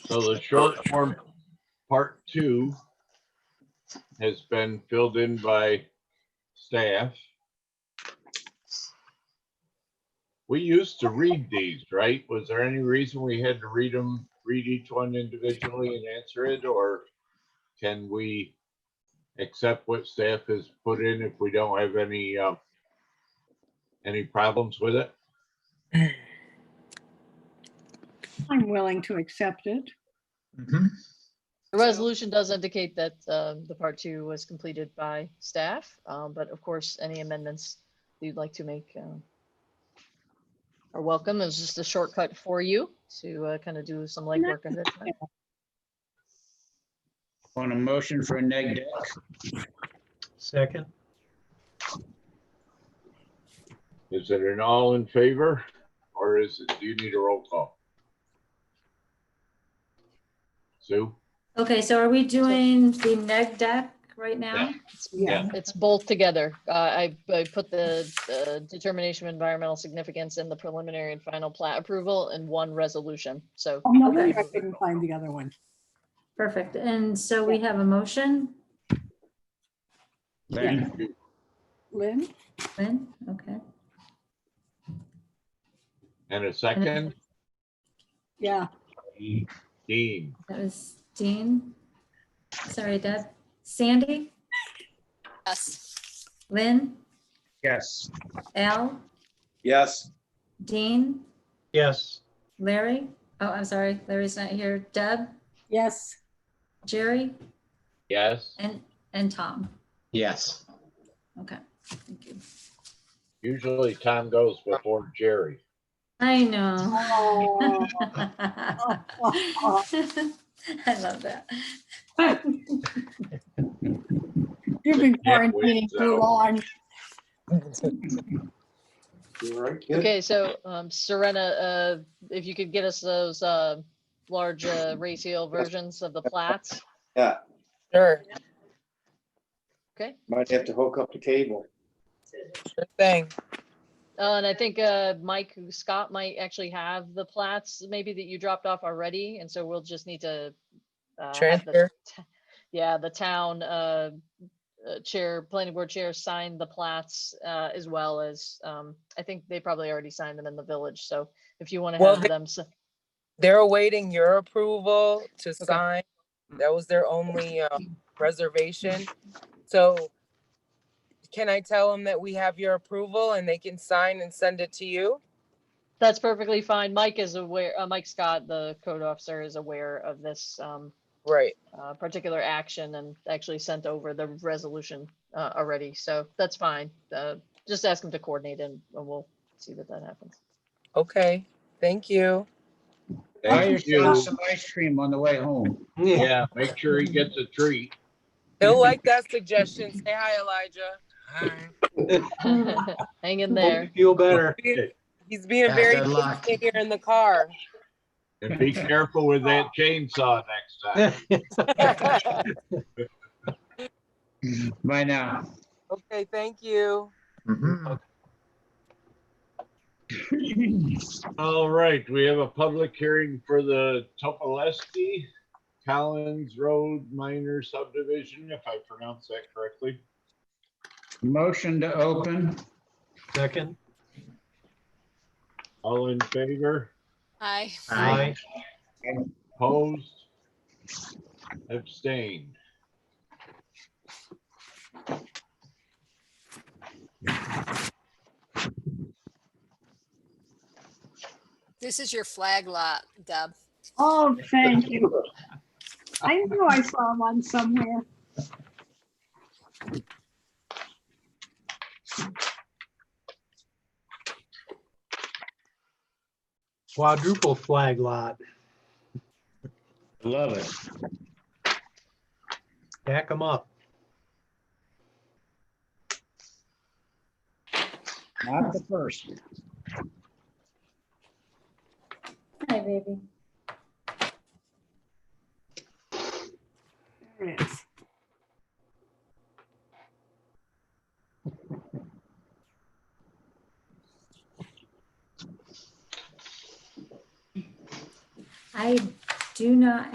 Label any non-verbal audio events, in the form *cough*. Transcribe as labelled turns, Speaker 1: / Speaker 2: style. Speaker 1: So the short form, part two, has been filled in by staff. We used to read these, right? Was there any reason we had to read them, read each one individually and answer it, or can we accept what staff has put in if we don't have any, uh, any problems with it?
Speaker 2: I'm willing to accept it.
Speaker 3: Mhm.
Speaker 4: The resolution does indicate that um, the part two was completed by staff, um, but of course, any amendments you'd like to make um, are welcome. It was just a shortcut for you to uh, kind of do some legwork. ahead of time.
Speaker 3: On a motion for a neg deck,
Speaker 5: Second,
Speaker 1: Is it an all in favor, or is it, do you need a roll call? Sue?
Speaker 6: Okay, so are we doing the neg deck right now?
Speaker 1: Yeah.
Speaker 4: It's both together. Uh, I I put the uh, determination of environmental significance and the preliminary and final plat approval in one resolution. So
Speaker 2: Oh, no wonder I couldn't find the other one.
Speaker 6: Perfect. And so we have a motion?
Speaker 3: Lynn,
Speaker 2: Lynn,
Speaker 6: Lynn? Okay,
Speaker 1: And a second?
Speaker 2: yeah,
Speaker 1: Dean,
Speaker 6: that was Dean. Sorry, Deb. Sandy?
Speaker 7: Yes.
Speaker 6: Lynn?
Speaker 3: yes.
Speaker 6: Al?
Speaker 8: Yes.
Speaker 6: Dean?
Speaker 5: yes,
Speaker 6: Larry? Oh, I'm sorry, Larry's not here. Deb?
Speaker 2: yes,
Speaker 6: Jerry?
Speaker 1: yes?
Speaker 6: And, and Tom?
Speaker 3: Yes.
Speaker 6: Okay, thank you.
Speaker 1: Usually Tom goes before Jerry.
Speaker 6: I know.
Speaker 2: *laughs*
Speaker 6: *laughs*
Speaker 2: Oh.
Speaker 6: I love that.
Speaker 2: you've been
Speaker 1: Can't
Speaker 2: quarantining
Speaker 1: wait,
Speaker 2: too
Speaker 1: so.
Speaker 2: long.
Speaker 8: You all right, kid?
Speaker 4: Okay, so um, Serena, uh, if you could get us those uh, large uh, ratio versions of the plats.
Speaker 8: Yeah,
Speaker 7: Sure,
Speaker 4: Okay,
Speaker 8: might have to hook up the cable.
Speaker 7: sure thing.
Speaker 4: uh, and I think uh, Mike Scott might actually have the plats maybe that you dropped off already, and so we'll just need to. uh, have the
Speaker 7: Transfer.
Speaker 4: t- Yeah, the town uh, uh, chair, planning board chair signed the plats uh, as well as, um, I think they probably already signed them in the village, so if you want to
Speaker 7: Well,
Speaker 4: have
Speaker 7: they-
Speaker 4: them, so,
Speaker 7: They're awaiting your approval to sign. That was their only uh, reservation. So can I tell them that we have your approval and they can sign and send it to you?
Speaker 4: That's perfectly fine. Mike is aware, uh, Mike Scott, the code officer is aware of this, um,
Speaker 7: Right.
Speaker 4: uh, particular action and actually sent over the resolution, uh, already. So that's fine. Uh, just ask him to coordinate and and we'll see that that happens. *laughs*
Speaker 7: Okay. Thank you.
Speaker 3: Buy
Speaker 1: Thank
Speaker 3: yourself
Speaker 1: you.
Speaker 3: some ice cream on the way home.
Speaker 1: Yeah, make sure he gets a treat.
Speaker 7: He'll like that suggestion. Say hi, Elijah. Hi.
Speaker 4: Hang in
Speaker 5: Hope you
Speaker 4: there.
Speaker 5: feel better.
Speaker 7: He's being
Speaker 3: Yeah,
Speaker 7: very
Speaker 3: good luck.
Speaker 7: patient here in the car. *laughs*
Speaker 1: And be careful with that chainsaw next
Speaker 3: Bye now. *clears throat*
Speaker 7: Okay, thank you.
Speaker 1: time. All right, we have a public hearing for the Topolesky Collins Road Minor Subdivision, if I pronounce that correctly.
Speaker 3: Motion to open,
Speaker 5: Second,
Speaker 1: All in favor?
Speaker 7: Hi.
Speaker 5: aye,
Speaker 1: Opposed? Abstained?
Speaker 9: This is your flag lot, Deb.
Speaker 2: Oh, thank
Speaker 1: *laughs*
Speaker 2: you. I knew I saw one somewhere.
Speaker 5: quadruple flag lot,
Speaker 3: love it.
Speaker 5: Back 'em up.
Speaker 3: Not the first.
Speaker 6: Hi, baby.
Speaker 2: There it is.
Speaker 6: I do not